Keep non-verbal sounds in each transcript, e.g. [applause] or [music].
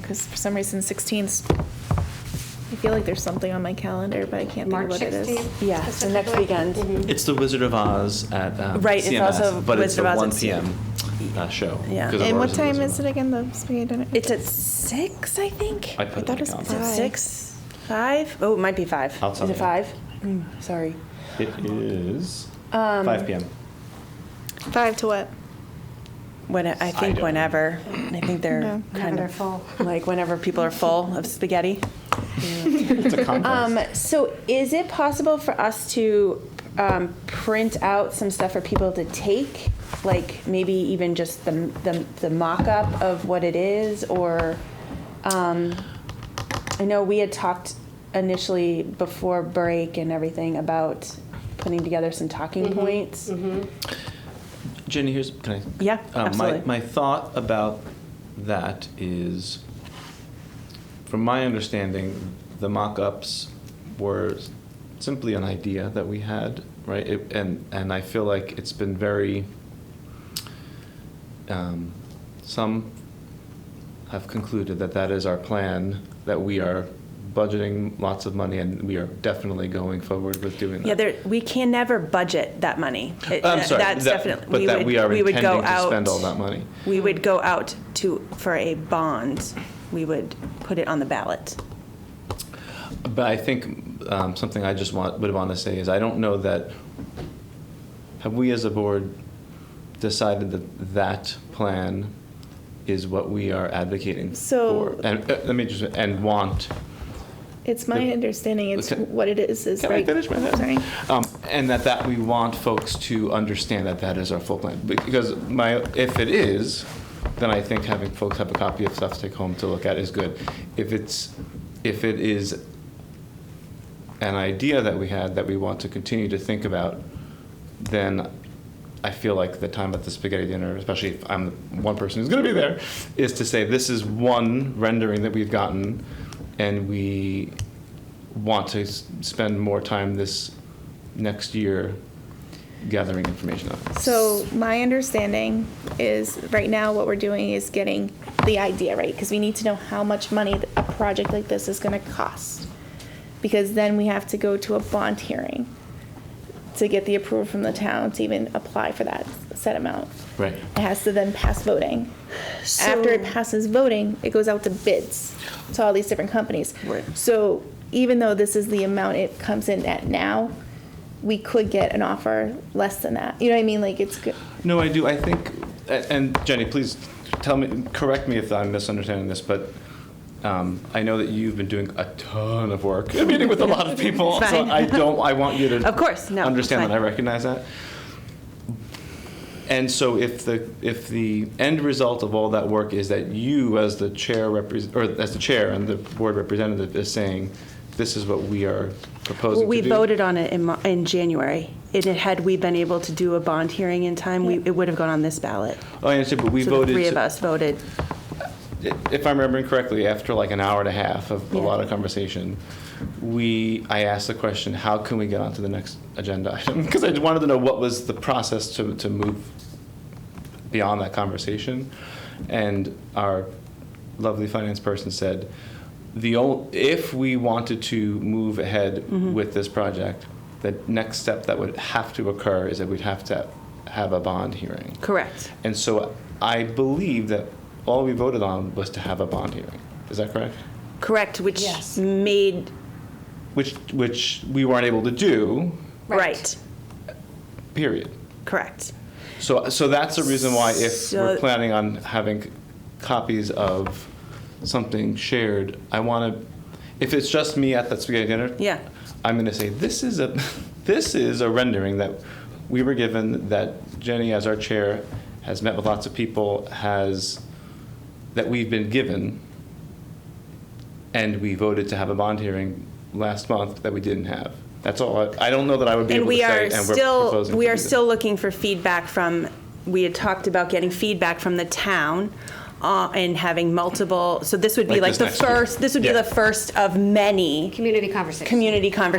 because for some reason 16th, I feel like there's something on my calendar, but I can't think of March what it is. 16th? Yeah, it's the next specifically? weekend. It's the Wizard of Oz at um, Right, it's CMS, also but Wizard of Oz at it's the 1 p.m. Uh, show. Yeah. 'cause And what Aurora's in time Wizard is of it Oz. again, the spaghetti dinner? It's at six, I think. I put it I thought in it was the Is it five. six? Five? Oh, it might be five. I'll tell Is it you. five? Mm, sorry. It is Um, 5 p.m. Five to what? When I think don't know. whenever. I think they're No. kind Whenever of they're full. like whenever people are full of spaghetti. [laughs] It's a conference. Um, so is it possible for us to um, print out some stuff for people to take? Like maybe even just the, the, the mock-up of what it is or, um, I know we had talked initially before break and everything about putting together some talking points. Jenny, here's can I? Yeah, Uh, absolutely. My, my thought about that is, from my understanding, the mock-ups were simply an idea that we had, right? It, and and I feel like it's been very. Um, some have concluded that that is our plan. That we are budgeting lots of money, and we are definitely going forward with doing that. Yeah, there, we can never budget that money. It- I'm sorry, That's that- definitely. but that would- we are would go intending to out- spend all that money. We would go out to, for a bond, we would put it on the ballot. But I think um, something I just want, would want to say is I don't know that, have we as a board decided that that plan is what we are advocating So- for? And, uh, let me just, and want. It's my The- understanding, it's Okay. what it is, is Can right. I finish my thought? Sorry. Um, and that, that we want folks to understand that that is our full plan. Because my, if it is, then I think having folks have a copy of stuff to take home to look at is good. If it's, if it is an idea that we had that we want to continue to think about, then I feel like the time at the spaghetti dinner, especially if I'm the one person who's going to be there, is to say this is one rendering that we've gotten, and we want to s- spend more time this next year gathering information on. it. So my understanding is, right now, what we're doing is getting the idea right, because we need to know how much money th- a project like this is gonna cost. Because then we have to go to a bond hearing to get the approval from the town to even apply for that set amount. Right. It has to then pass voting. After it passes voting, it goes out to bids to all these different companies. Right. So even though this is the amount it comes in at now, we could get an offer less than that. You know what I mean? Like it's good. No, I do. I think, a- and Jenny, please tell me, correct me if I'm misunderstanding this, but um, I know that you've been doing a ton of work, [laughs] a meeting with a lot of people. It's so fine. I don't. I want you to Of course, no, it's understand that. I fine. recognize that. And so, if the if the end result of all that work is that you, as the chair repres or as the chair and the board representative, is saying, "This is what we are proposing." Well, we to do," voted on it in, Mar- in January. It, had- had we been able to do a bond hearing in time, we, it would have gone on this ballot. Oh, I understand, but we So the voted. three to- of us voted. if I'm remembering correctly, after like an hour and a half of a Yeah. lot of conversation, we I asked the question, how can we get onto the next agenda [laughs] item? Because I wanted to know what was the process to, to move beyond that conversation. And our lovely finance person said, the ol if we wanted to move ahead with this project, the next step that would have to occur is that we'd have to have a bond hearing. Correct. And so I believe that all we voted on was to have a bond hearing. Is that correct? Correct, which Yes. made, Which, which we weren't able to do, Right. right, period. correct. So, so that's the reason why if So- we're planning on having copies of something shared, I want to, if it's just me at that spaghetti dinner, Yeah. I'm going to say, this is a, [laughs] this is a rendering that we were given, that Jenny as our chair has met with lots of people, has, that we've been given, and we voted to have a bond hearing last month that we didn't have. That's all. I, I don't know that I would be And able to we say. are still, proposing we to are do this. still looking for feedback from, we had talked about getting feedback from the town uh, and having multiple, so this would be Like like this the next year. first, this would be Yeah. the first of many. Community conversation. I Community pulled out my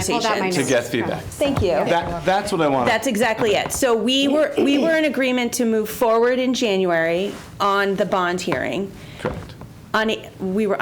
conversations. To notes. get feedback. Thank you. That, that's what I want. That's exactly it. So we were, we were in agreement to move forward in January on the bond hearing. Correct. On, we were